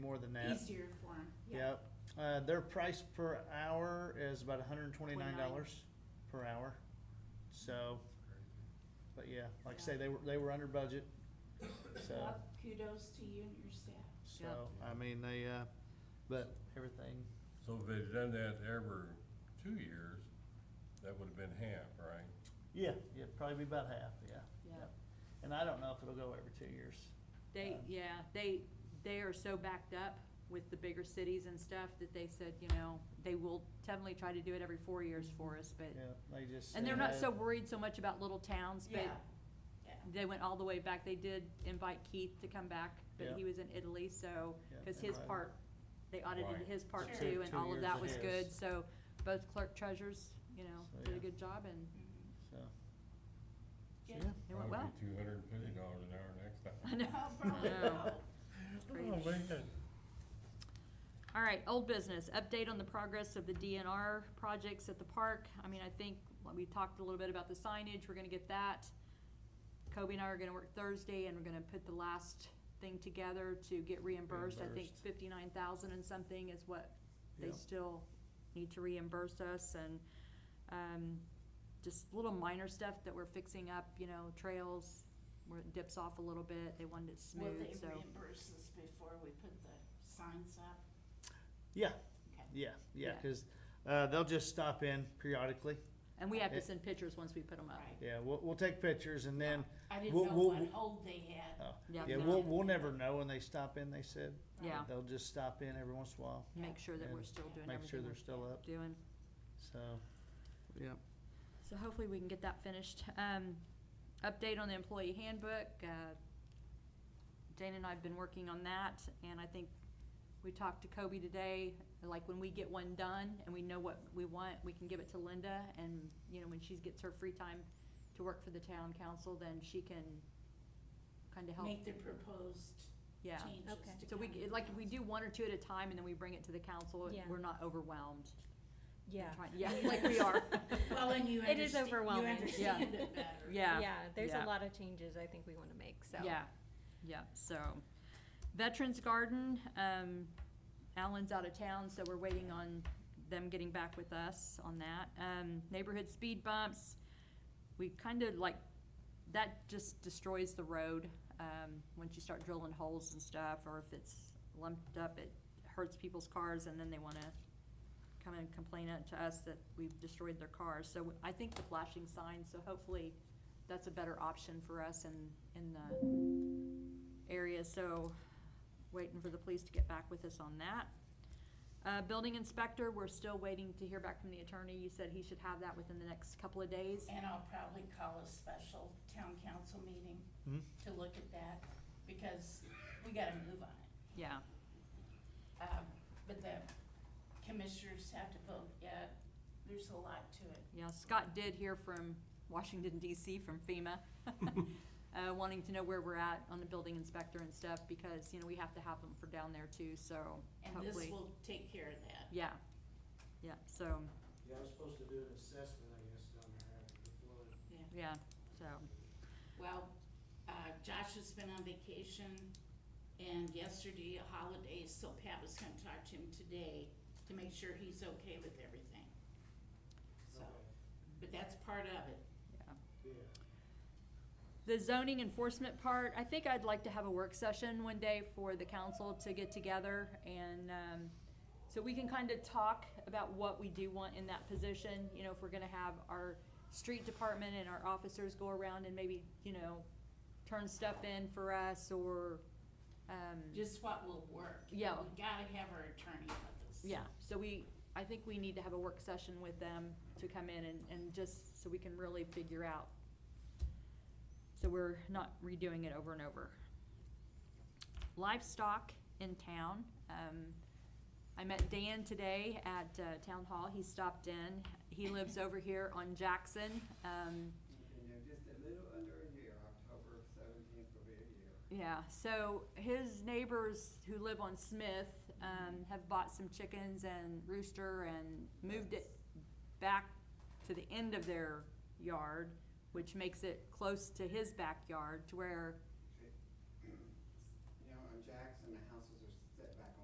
more than that. Easier for them, yeah. Yep, uh, their price per hour is about hundred and twenty-nine dollars per hour, so, but yeah, like I say, they were, they were under budget, so, Well, kudos to you and your staff. so, I mean, they, uh, but everything, So if they'd done that every two years, that would've been half, right? yeah, yeah, probably be about half, yeah. Yeah. And I don't know if it'll go every two years, They, Um, yeah, they, they are so backed up with the bigger cities and stuff that they said, you know, they will definitely try to do it every four years for us, but, yeah, they just. and they're said, not so "Hey, worried so much about little towns, but Yeah, yeah. they went all the way back. They did invite Keith to come back, but Yeah. he was in Italy, so, Yeah, cause they his might- part, they Right. audited his part Sure. too, Two- and two all of years that it was good, is. so both clerk treasurers, you So, know, did a yeah. good job and Mhm. So, so, Good. yeah, it went well. Two hundred and fifty dollars an hour next time. I know. Oh, probably. No. Oh, man. All right, old business, update on the progress of the DNR projects at the park. I mean, I think, like, we talked a little bit about the signage, we're gonna get that. Kobe and I are gonna work Thursday and we're gonna put the last thing together to get reimbursed. I think Reimbursed. fifty-nine thousand and something is what yeah, they still need to reimburse us and, um, just little minor stuff that we're fixing up, you know, trails, where it dips off a little bit, they wanted it Will they smooth, so. reimburse us before we put the signs up? Yeah. Okay. yeah, yeah, Yeah. cause, uh, they'll just stop in periodically, And we have to It- send pictures once we put them up. Right. yeah, we'll, we'll take pictures and then, I didn't know We'll- we'll- what hold they had. oh, Yeah, Yeah, no. we'll, we'll never know when they stop in, they said. um, Yeah. They'll just stop in every once in a while, make sure that we're And still doing make sure everything they're we're still up, doing. so, yeah. So hopefully we can get that finished. Um, update on the employee handbook, uh, Dana and I have been working on that, and I think we talked to Kobe today, like when we get one done and we know what we want, we can give it to Linda, and, you know, when she gets her free time to work for the town council, then she can kinda help, Make the proposed yeah. changes to Okay. So we, county like, if we council. do one or two at a time and then we bring it to the council, Yeah. we're not overwhelmed. Yeah, Trying- Yeah, like we are. Well, and you It is understand, you overwhelming. Yeah. understand it better. Yeah. yeah, there's yeah. a lot of changes I think we wanna make, so. Yeah, yeah, so. Veterans Garden, um, Alan's out of town, so we're waiting on them getting back with us on that. Um, neighborhood speed bumps, we kind of like, that just destroys the road, um, once you start drilling holes and stuff, or if it's lumped up, it hurts people's cars, and then they wanna come and complain out to us that we've destroyed their cars. So I think the flashing signs, so hopefully that's a better option for us in, in the area, so waiting for the police to get back with us on that. Uh, building inspector, we're still waiting to hear back from the attorney. You said he should have that within the next couple of days. And I'll probably call a special town council meeting Mhm. to look at that, because we gotta move on it. Yeah, Um, but the commissioners have to vote yet, there's a lot to it. yeah, Scott did hear from Washington DC from FEMA, uh, wanting to know where we're at on the building inspector and stuff, because, you know, we have to have them for down there too, so And hopefully. this will take care of that. Yeah, yeah, so, Yeah, I was supposed to do an assessment, I guess, down there after the flood. yeah, so, Well, uh, Josh has been on vacation and yesterday a holiday, so Pat was gonna talk to him today to make sure he's okay with everything. So, Okay, but that's part of it. yeah. Yeah. The zoning enforcement part, I think I'd like to have a work session one day for the council to get together and, um, so we can kind of talk about what we do want in that position, you know, if we're gonna have our street department and our officers go around and maybe, you know, turn stuff in for us or, um. Just what will work. Yeah. We gotta have our attorney with us. Yeah, so we, I think we need to have a work session with them to come in and, and just so we can really figure out. So we're not redoing it over and over. Livestock in town, um, I met Dan today at, uh, town hall, he stopped in, he lives over here on Jackson, um, And they're just a little under a year, October seventeenth will be a year. Yeah, so his neighbors who live on Smith, um, have bought some chickens and rooster and moved it back to the end of their yard, which makes it close to his backyard to where